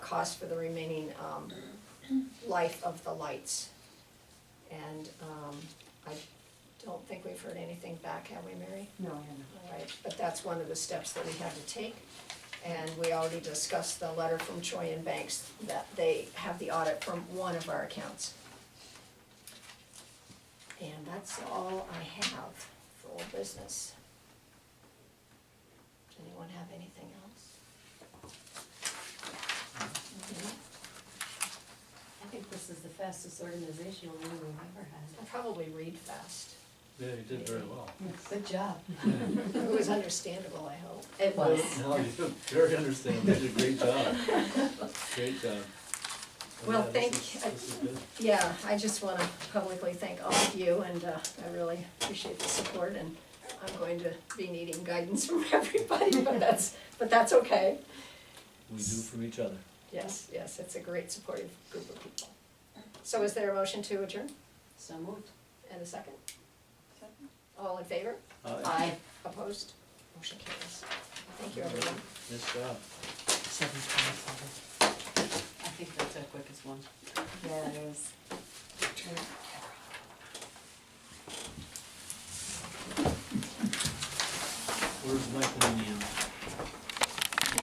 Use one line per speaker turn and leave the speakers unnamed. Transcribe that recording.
cost for the remaining um life of the lights. And um I don't think we've heard anything back, have we, Mary?
No, I haven't.
All right, but that's one of the steps that we had to take. And we already discussed the letter from Troy and Banks that they have the audit from one of our accounts. And that's all I have for old business. Does anyone have anything else? Mhm.
Mm-hmm.
I think this is the fastest organizational meeting we've ever
I
had.
probably read fast.
Yeah, you did very well.
Good job.
It was understandable, I hope.
It was.
No, you did very understandable, you did a great job, great job.
Well,
Yeah, this
thank-
is- This is good.
Yeah, I just wanna publicly thank all of you and uh, I really appreciate the support and I'm going to be needing guidance from everybody, but that's, but that's okay.
We do from each other.
Yes, yes, it's a great supportive group of people. So is there a motion to adjourn
So moved.
and a second? All in favor?
Uh,
Aye.
Opposed? Motion carries. Thank you, everyone.
nice job.
Seven twenty-seven.
I think that's our quickest one.
Yeah, it is.